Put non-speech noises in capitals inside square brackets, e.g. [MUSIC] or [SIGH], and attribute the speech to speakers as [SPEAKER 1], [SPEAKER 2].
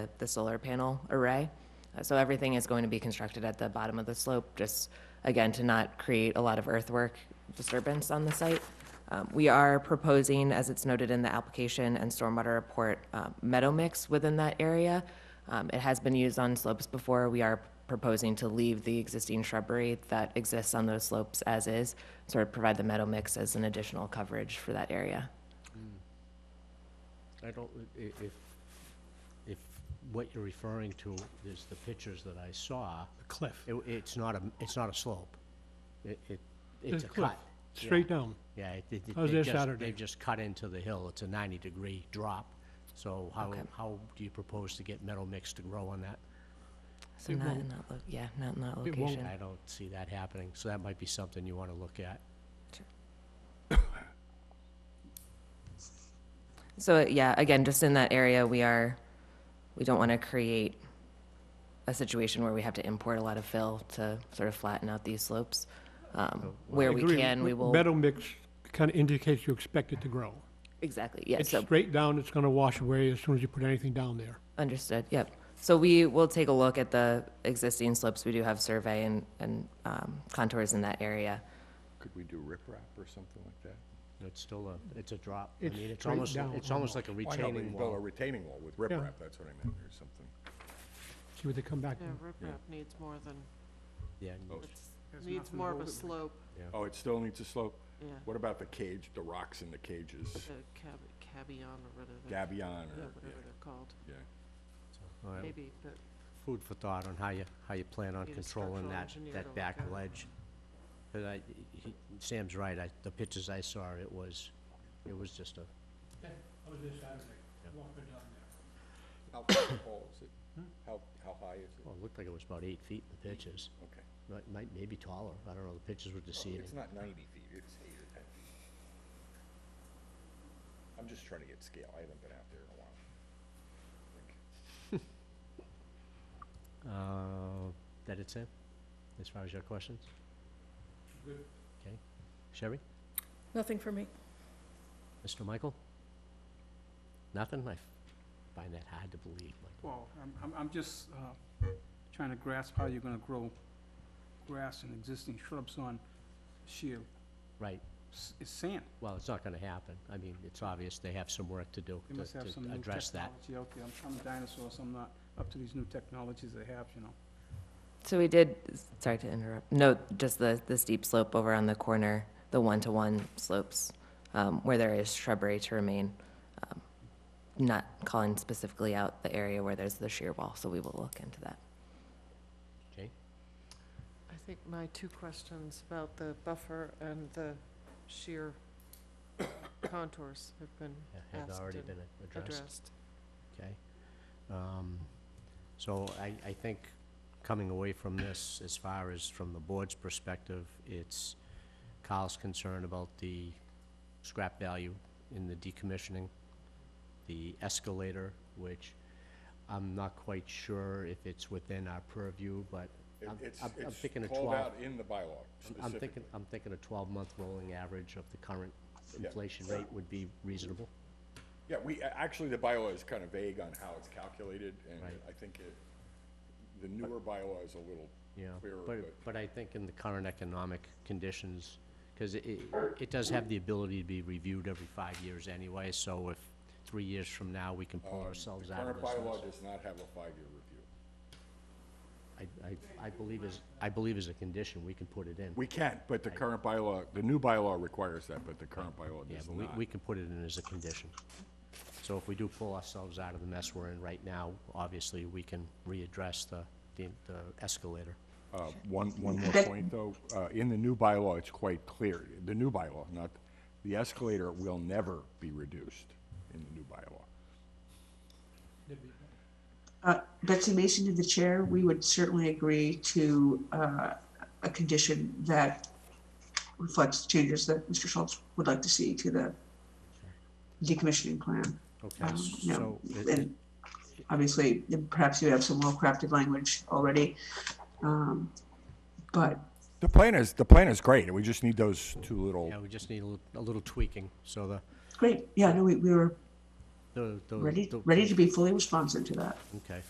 [SPEAKER 1] the- the solar panel array. Uh, So everything is going to be constructed at the bottom of the slope, just, again, to not create a lot of earthwork disturbance on the site. Um, We are proposing, as it's noted in the application and stormwater report, uh, meadow mix within that area. Um, It has been used on slopes before. We are proposing to leave the existing shrubbery that exists on those slopes as is, sort of provide the meadow mix as an additional coverage for that area.
[SPEAKER 2] I don't, i- i- if, if what you're referring to is the pictures that I saw,
[SPEAKER 3] cliff.
[SPEAKER 2] it, it's not a, it's not a slope. It, it,
[SPEAKER 3] It's
[SPEAKER 2] it's a
[SPEAKER 3] cliff,
[SPEAKER 2] cut. Yeah,
[SPEAKER 3] Straight down.
[SPEAKER 2] Yeah, it- it- it-
[SPEAKER 3] I was
[SPEAKER 2] they
[SPEAKER 3] there
[SPEAKER 2] just,
[SPEAKER 3] Saturday.
[SPEAKER 2] they've just cut into the hill. It's a ninety-degree drop. So how,
[SPEAKER 1] Okay.
[SPEAKER 2] how do you propose to get metal mix to grow on that?
[SPEAKER 1] So
[SPEAKER 3] It
[SPEAKER 1] not in
[SPEAKER 3] won't-
[SPEAKER 1] that, lo- yeah, not in that
[SPEAKER 3] it won't
[SPEAKER 1] location.
[SPEAKER 2] I don't see that happening, so that might be something you wanna look at.
[SPEAKER 1] So, yeah, again, just in that area, we are, we don't want to create a situation where we have to import a lot of fill to sort of flatten out these slopes. Um, Where we
[SPEAKER 3] Agree.
[SPEAKER 1] can, we will,
[SPEAKER 3] Metal mix kind of indicates you expect it to grow.
[SPEAKER 1] exactly, yeah,
[SPEAKER 3] It's
[SPEAKER 1] so,
[SPEAKER 3] straight down, it's gonna wash away as soon as you put anything down there.
[SPEAKER 1] understood, yep. So we will take a look at the existing slopes, we do have survey and, and um, contours in that area.
[SPEAKER 4] Could we do riprap or something like that?
[SPEAKER 2] It's still a, it's a drop. I
[SPEAKER 3] It's
[SPEAKER 2] mean, it's
[SPEAKER 3] straight
[SPEAKER 2] almost,
[SPEAKER 3] down
[SPEAKER 2] it's almost like a
[SPEAKER 4] Why not? We
[SPEAKER 2] retaining
[SPEAKER 4] can Build a
[SPEAKER 2] wall.
[SPEAKER 4] retaining wall with riprap, that's what I meant, or something.
[SPEAKER 3] See what they come back
[SPEAKER 5] Yeah,
[SPEAKER 3] with.
[SPEAKER 4] Yeah.
[SPEAKER 5] riprap needs more than,
[SPEAKER 2] Yeah, and-
[SPEAKER 4] Oh.
[SPEAKER 5] it's- needs more of a slope,
[SPEAKER 4] Oh, it still needs a slope?
[SPEAKER 5] yeah,
[SPEAKER 4] What about the cage, the rocks in the cages,
[SPEAKER 5] the cab, cabion or whatever. they're-
[SPEAKER 4] gabion
[SPEAKER 5] yeah,
[SPEAKER 4] or,
[SPEAKER 5] Whatever they're called,
[SPEAKER 4] yeah,
[SPEAKER 2] so, all right.
[SPEAKER 5] maybe, but
[SPEAKER 2] food for thought on how you, how you plan on
[SPEAKER 5] Need a
[SPEAKER 2] controlling
[SPEAKER 5] structural
[SPEAKER 2] that,
[SPEAKER 5] engineer to
[SPEAKER 2] that
[SPEAKER 5] look
[SPEAKER 2] back
[SPEAKER 5] at it.
[SPEAKER 2] ledge. 'Cause I, he, Sam's right, I, the pictures I saw, it was, it was just a,
[SPEAKER 3] I was there Saturday, walking down
[SPEAKER 4] yeah. How tall is it? How, how high is it?
[SPEAKER 2] well, it looked like it was about eight feet in the pictures.
[SPEAKER 4] Okay.
[SPEAKER 2] Might, might, maybe taller, I don't know, the pictures were deceiving.
[SPEAKER 4] It's not ninety feet, it's eight or ten feet. I'm just trying to get scale, I haven't been out there in a while. Like,
[SPEAKER 2] Uh, that it, Sam? As far as your questions? Okay. Sherry?
[SPEAKER 6] Nothing for me.
[SPEAKER 2] Mr. Michael? Nothing? I f- find that hard to believe, Michael.
[SPEAKER 7] Well, I'm, I'm, I'm just, uh, trying to grasp how you're gonna grow grass and existing shrubs on sheer,
[SPEAKER 2] Right,
[SPEAKER 7] s- it's sand.
[SPEAKER 2] well, it's not gonna happen. I mean, it's obvious they have some work to do
[SPEAKER 7] They
[SPEAKER 2] to,
[SPEAKER 7] must have some
[SPEAKER 2] to
[SPEAKER 7] new
[SPEAKER 2] address that.
[SPEAKER 7] technology out there. I'm, I'm a dinosaur, so I'm not up to these new technologies they have, you know.
[SPEAKER 1] So we did, sorry to interrupt, note just the, the steep slope over on the corner, the one-to-one slopes, um, where there is shrubbery to remain, um, not calling specifically out the area where there's the shear wall, so we will look into that.
[SPEAKER 2] Okay?
[SPEAKER 5] I think my two questions about the buffer and the sheer [COUGHS] contours have been
[SPEAKER 2] Yeah, Have
[SPEAKER 5] asked
[SPEAKER 2] already
[SPEAKER 5] and
[SPEAKER 2] been a- addressed,
[SPEAKER 5] addressed.
[SPEAKER 2] okay? Um, So I, I think coming away from this, as far as from the board's perspective, it's Carl's concern about the scrap value in the decommissioning, the escalator, which I'm not quite sure if it's within our purview, but
[SPEAKER 4] it-
[SPEAKER 2] I'm,
[SPEAKER 4] It's,
[SPEAKER 2] I'm- I'm thinking a
[SPEAKER 4] it's
[SPEAKER 2] twelve.
[SPEAKER 4] called out in the bylaw
[SPEAKER 2] I'm- I'm thinking,
[SPEAKER 4] specifically.
[SPEAKER 2] I'm thinking a twelve-month rolling average of the current
[SPEAKER 4] Yeah.
[SPEAKER 2] inflation rate would be reasonable.
[SPEAKER 4] Yeah, we, a- actually, the bylaw is kind of vague on how it's calculated, and
[SPEAKER 2] Right.
[SPEAKER 4] I think it, the newer bylaw is a little
[SPEAKER 2] Yeah,
[SPEAKER 4] clearer,
[SPEAKER 2] but,
[SPEAKER 4] but.
[SPEAKER 2] but I think in the current economic conditions, because it, it does have the ability to be reviewed every five years anyway, so if three years from now, we can pull
[SPEAKER 4] um,
[SPEAKER 2] ourselves out of
[SPEAKER 4] The
[SPEAKER 2] this.
[SPEAKER 4] current bylaw
[SPEAKER 2] mess.
[SPEAKER 4] does not have a five-year review.
[SPEAKER 2] I, I, I believe is, I believe as a condition, we can put it in.
[SPEAKER 4] We can, but the current bylaw, the new bylaw requires that, but the current bylaw
[SPEAKER 2] Yeah,
[SPEAKER 4] does
[SPEAKER 2] but we,
[SPEAKER 4] not.
[SPEAKER 2] we can put it in as a condition. So if we do pull ourselves out of the mess we're in right now, obviously, we can readdress the, the the escalator.
[SPEAKER 4] Uh, One, one more point, though. Uh, In the new bylaw, it's quite clear, the new bylaw, not, the escalator will never be reduced in the new bylaw.
[SPEAKER 8] Uh, Betsy Mason to the chair, we would certainly agree to uh, a condition that reflects changes that Mr. Schultz would like to see to the decommissioning plan.
[SPEAKER 2] Okay,
[SPEAKER 8] Um, you know,
[SPEAKER 2] so, it- it-
[SPEAKER 8] And obviously, perhaps you have some well-crafted language already. um, But
[SPEAKER 4] The plan is, the plan is great, we just need those two little,
[SPEAKER 2] yeah, we just need a little, a little tweaking, so the,
[SPEAKER 8] great, yeah, no, we we were
[SPEAKER 2] The- the-
[SPEAKER 8] ready,
[SPEAKER 2] the- Mm,
[SPEAKER 8] ready to be fully responsive to that.
[SPEAKER 2] Okay.